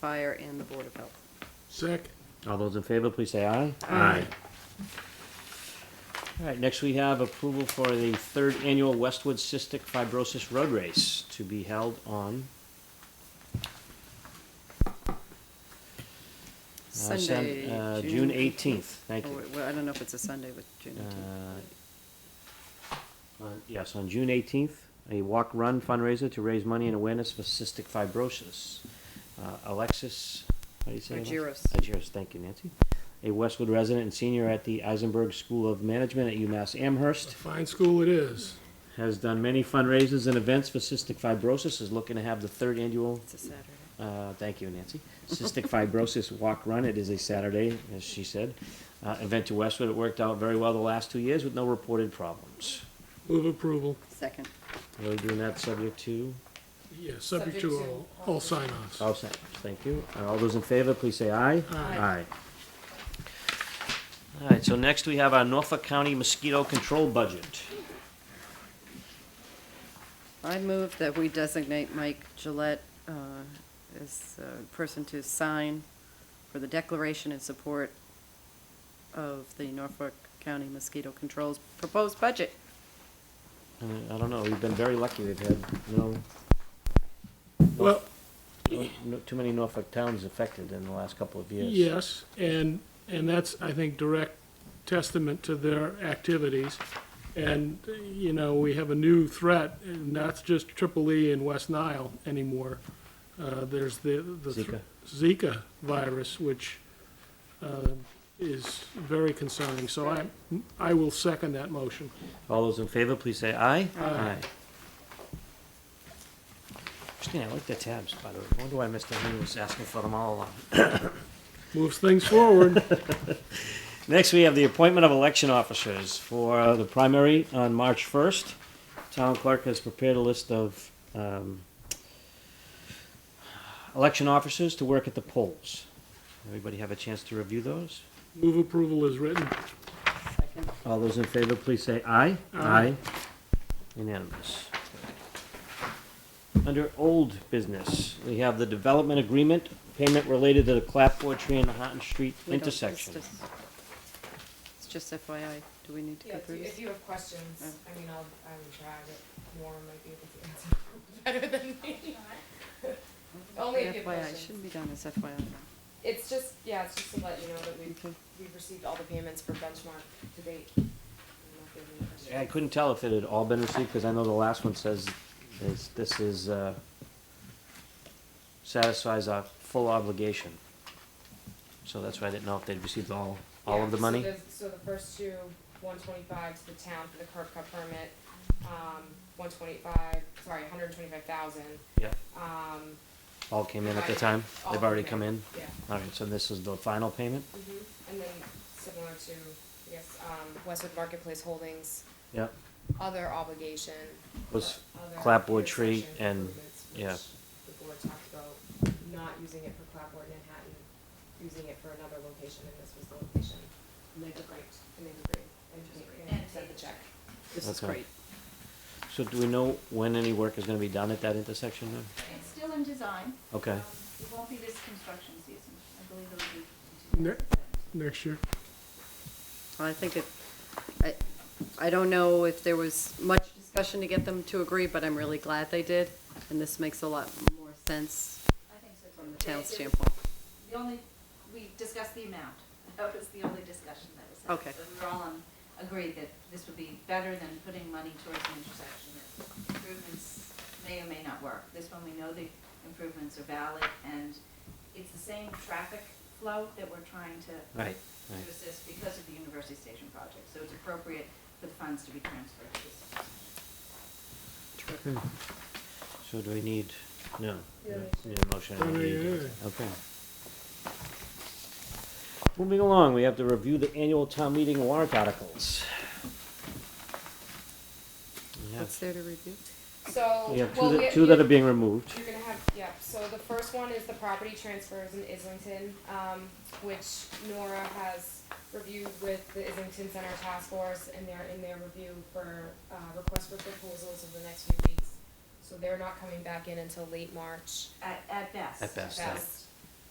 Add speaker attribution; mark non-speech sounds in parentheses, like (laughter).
Speaker 1: Fire and the Board of Health.
Speaker 2: Second.
Speaker 3: All those in favor, please say aye.
Speaker 1: Aye.
Speaker 3: All right, next we have approval for the third annual Westwood Cystic Fibrosis Road Race to be held on uh, Sun-
Speaker 1: Sunday,
Speaker 3: uh, June eighteenth. Thank
Speaker 1: Oh,
Speaker 3: you.
Speaker 1: wait, Well, I don't know if it's a Sunday, but June eighteenth.
Speaker 3: Uh, on- Yes, on June 18th, a walk-run fundraiser to raise money and awareness for cystic fibrosis. Uh, Alexis, how do you say? Alexis?
Speaker 1: Argyros.
Speaker 3: Argyros, thank you, Nancy. A Westwood resident and senior at the Eisenberg School of Management at UMass Amherst,
Speaker 2: Fine school it is.
Speaker 3: has done many fundraisers and events for cystic fibrosis, is looking to have the third annual
Speaker 1: It's a Saturday.
Speaker 3: uh, thank you, Nancy. Cystic Fibrosis Walk Run. It is a Saturday, as she said. Uh, event to Westwood. It worked out very well the last two years with no reported problems.
Speaker 2: Move approval.
Speaker 1: Second,
Speaker 3: Are we doing that subject to?
Speaker 2: Yeah, subject to all, all sign-offs.
Speaker 3: All set. Thank you. Uh, All those in favor, please say aye.
Speaker 2: Aye.
Speaker 3: All right, so next we have our Norfolk County mosquito control budget.
Speaker 1: I move that we designate Mike Gillette uh, as a person to sign for the declaration in support of the Norfolk County Mosquito Control's proposed budget.
Speaker 3: Uh, I don't know, we've been very lucky. We've had no,
Speaker 2: Well,
Speaker 3: no- no- too many Norfolk towns affected in the last couple of years.
Speaker 2: yes, and, and that's, I think, direct testament to their activities. And, you know, we have a new threat, and that's just Triple E and West Nile anymore. Uh, there's the, the. thr-
Speaker 3: Zika.
Speaker 2: Zika virus, which, uh, is very concerning. So I, I will second that motion.
Speaker 3: All those in favor, please say aye. Christine, I like the tabs, by the way. I wonder why Mr. Henry was asking for them all along.
Speaker 2: Moves things forward.
Speaker 3: Next, we have the appointment of election officers for uh, the primary on March 1st. Town clerk has prepared a list of um, election officers to work at the polls. Everybody have a chance to review those?
Speaker 2: Move approval is written.
Speaker 1: Second,
Speaker 3: All those in favor, please say aye.
Speaker 2: Aye.
Speaker 3: Unanimous. Under old business, we have the development agreement, payment related to the clapboard tree and the Houghton Street
Speaker 1: we don't- it's
Speaker 3: intersection.
Speaker 1: just- It's just FYI, do we need to
Speaker 4: Yeah,
Speaker 1: go
Speaker 4: if you,
Speaker 1: through
Speaker 4: if
Speaker 1: this?
Speaker 4: you have questions,
Speaker 1: Yeah.
Speaker 4: I mean, I'll, I'm glad that Warren might be able to (laughs) answer better than me. Only if you have
Speaker 1: FYI,
Speaker 4: questions.
Speaker 1: shouldn't be done as FYI.
Speaker 4: It's just, yeah, it's just to let you know that we've,
Speaker 1: Okay.
Speaker 4: we've received all the payments for benchmark to date. I don't know if you have any questions.
Speaker 3: I couldn't tell if it had all been received, because I know the last one says this, this is, uh, satisfies our full obligation. So that's why I didn't know if they'd received all, all
Speaker 4: Yeah,
Speaker 3: of the
Speaker 4: so
Speaker 3: money.
Speaker 4: there's- So the first two, one twenty-five to the town for the curb cut permit, um, one twenty-five, sorry, hundred and twenty-five thousand,
Speaker 3: Yeah,
Speaker 4: um,
Speaker 3: all came in at the time?
Speaker 4: all
Speaker 3: They've already
Speaker 4: came
Speaker 3: come in?
Speaker 4: yeah.
Speaker 3: All right, so this is the final payment?
Speaker 4: Mhm. And then similar to, I guess, um, Westwood Marketplace Holdings,
Speaker 3: Yep.
Speaker 4: other obligation.
Speaker 3: Was
Speaker 4: for other
Speaker 3: clapboard tree
Speaker 4: intersection
Speaker 3: and-
Speaker 4: improvements, which
Speaker 3: yeah.
Speaker 4: The board talked about not using it for clapboard in Manhattan, using it for another location, and this was the location. And they've agreed. And they've agreed, and they- and sent the check.
Speaker 1: This is
Speaker 3: Okay.
Speaker 1: great.
Speaker 3: So do we know when any work is gonna be done at that intersection then?
Speaker 5: It's still in design.
Speaker 3: Okay.
Speaker 5: Um, It won't be this construction season. I believe it'll be.
Speaker 2: Ne- Next year.
Speaker 1: I think it, I, I don't know if there was much discussion to get them to agree, but I'm really glad they did, and this makes a lot more sense
Speaker 5: I think so.
Speaker 1: from
Speaker 5: too.
Speaker 1: the town's
Speaker 5: It- it-
Speaker 1: standpoint.
Speaker 5: The only, we discussed the amount. (laughs) That was the only discussion that was. had.
Speaker 1: Okay.
Speaker 5: But we were all on, agreed that this would be better than putting money towards an intersection. that Improvements may or may not work. This one, we know the improvements are valid, and it's the same traffic flow that we're trying to
Speaker 3: Right, right.
Speaker 5: to assist because of the University Station project, so it's appropriate for the funds to be transferred to this.
Speaker 3: So do we need, no,
Speaker 4: Yeah,
Speaker 3: no,
Speaker 4: we
Speaker 3: need a motion? I don't
Speaker 2: Yeah,
Speaker 3: need
Speaker 2: yeah,
Speaker 3: it. Okay. Moving along, we have to review the annual town meeting warrant articles. We have-
Speaker 1: What's there to review?
Speaker 4: So,
Speaker 3: We have two
Speaker 4: well,
Speaker 3: that,
Speaker 4: we-
Speaker 3: two that
Speaker 4: we-
Speaker 3: are being removed.
Speaker 4: You're gonna have, yeah, so the first one is the property transfers in Islington, um, which Nora has reviewed with the Islington Center Task Force, and they're in their review for, uh, request for proposals over the next few weeks. So they're not coming back in until late March.
Speaker 5: At, at best.
Speaker 3: At best,
Speaker 4: Best.